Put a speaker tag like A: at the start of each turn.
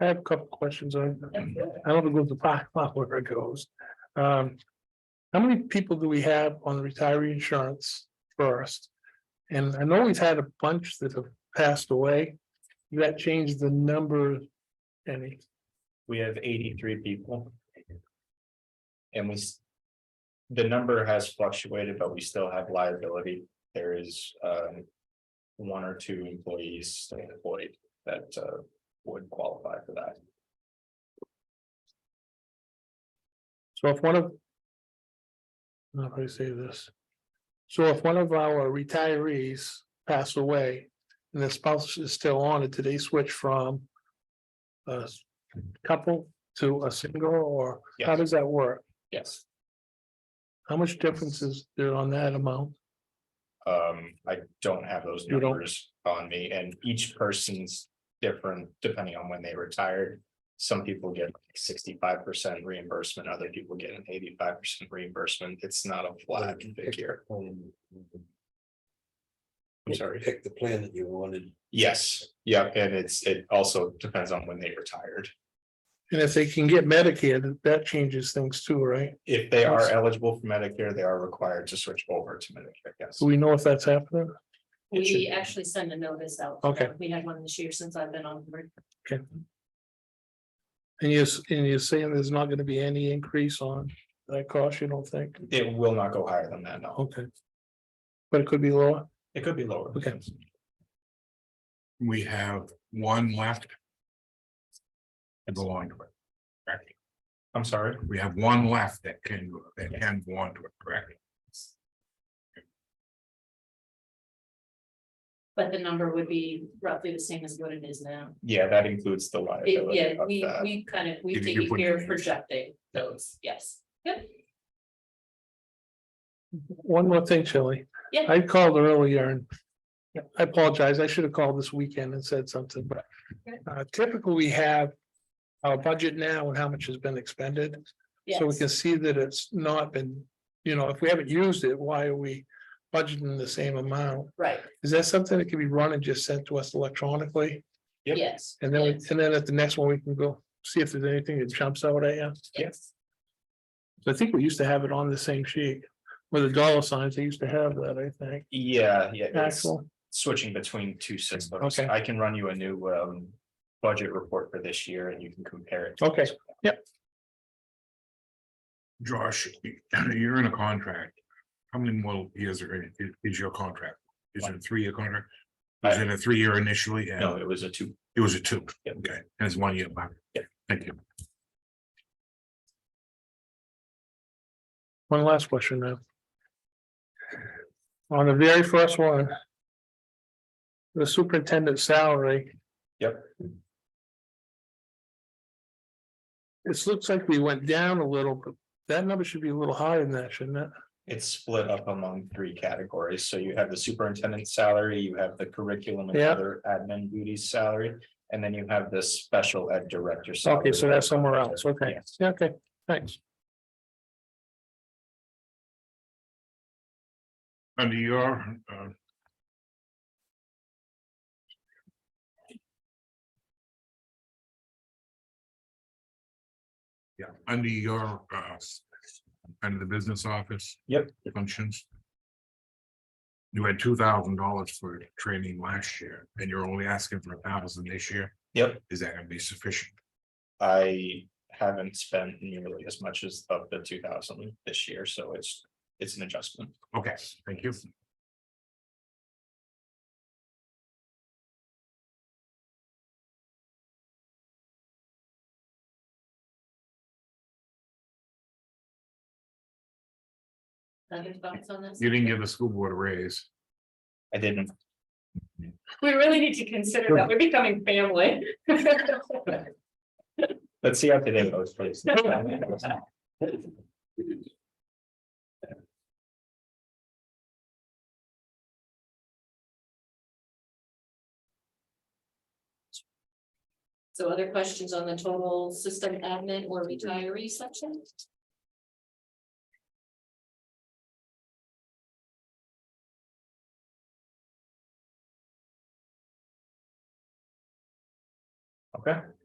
A: I have a couple questions on, I don't know if the plot where it goes. Um. How many people do we have on the retiree insurance first? And I know we've had a bunch that have passed away. That changed the number any.
B: We have eighty-three people. And we. s- The number has fluctuated, but we still have liability. There is um. One or two employees still employed that uh would qualify for that.
A: So if one of. I don't know How do I say this? So if one of our retirees pass away and the spouse is still on it, do they switch from? A s- couple to a single or how
B: Yes.
A: does that work?
B: Yes,
A: How much difference is there on that amount?
B: um, I don't have those
A: You don't?
B: numbers on me and each person's different depending on when they retired. Some people get sixty-five percent reimbursement, other people get an eighty-five percent reimbursement. It's not a flat figure. I'm sorry.
C: Pick the plan that you wanted.
B: Yes, yeah, and it's, it also depends on when they retired.
A: And if they can get Medicare, that- that changes things too, right?
B: If they are
A: Yes.
B: eligible for Medicare, they are required to switch over to Medicare, yes.
A: Do we know if that's happening?
B: It should
D: We
B: be.
D: actually send a notice out.
A: Okay.
D: We had one this year since I've been on. board.
A: Okay. And you're, s- and you're saying there's not gonna be any increase on that cost, you don't think?
B: It will not go higher than that, no.
A: Okay. But it could be lower.
B: It could be lower.
A: Okay.
E: We have one left. That belong to it. Correct.
B: I'm sorry,
E: We have one left that can, that can belong to it, correct?
D: But the number would be roughly the same as what it is now.
B: yeah, that includes the
D: It-
B: liability
D: Yeah,
B: of
D: we,
B: that.
D: we kind of, we
E: If you
D: take
E: put
D: care
E: it
D: of
E: in.
D: projecting those, yes. Yep,
A: One more thing, Shelley.
D: Yeah.
A: I called earlier and I apologize. I should have called this weekend and said something, but
D: Okay.
A: uh, typically we have our budget now and how much has been expended. So we
D: yes.
A: can see that it's not been, you know, if we haven't used it, why are we budgeting the same amount?
D: Right,
A: Is that something that can be run and just sent to us electronically?
B: Yep.
D: yes.
A: And then, we-
D: yes,
A: and then at the next one, we can go see if there's anything that jumps out at you.
D: Yes,
A: So I think we used to have it on the same sheet with the dollar signs. They used to have that, I think.
B: Yeah, yeah, it's
A: Actual.
B: switching between two systems.
A: Okay.
B: I can run you a new um budget report for this year and you can compare it. to
A: Okay.
B: this.
E: Josh, you're in a contract. How many more years are in, is- is your contract? Is it a three-year contract? Was it a three-year initially? and
B: Uh, No, it was a two,
E: It was a two,
B: Yeah.
E: okay, and it's one year left.
B: Yeah.
E: Thank you.
A: One last question now. On the very first one. The superintendent salary.
B: Yep.
A: This looks like we went down a little, but that number should be a little higher than that, shouldn't it?
B: it's split up among three categories. So you have the superintendent's salary, you have the curriculum and
A: Yeah.
B: other admin duties salary. And then you have the special ed director.
A: Okay,
B: salary.
A: so that's somewhere else. Okay,
B: Yes.
A: Yeah, okay, thanks.
E: Under your, uh. Yeah, under your, uh, under the business office.
B: Yep.
E: Functions. You had two thousand dollars for training last year, and you're only asking for a thousand this year.
B: Yep.
E: Is that gonna be sufficient?
B: I haven't spent nearly as much as of the two thousand this year, so it's, it's an adjustment.
E: Okay, thank you.
D: other thoughts on this?
E: You didn't give the school board a raise.
B: I didn't,
D: We really need to consider that, we're becoming family.
B: let's see how today goes, please.
D: So other questions on the total system admin or retiree section?
B: Okay,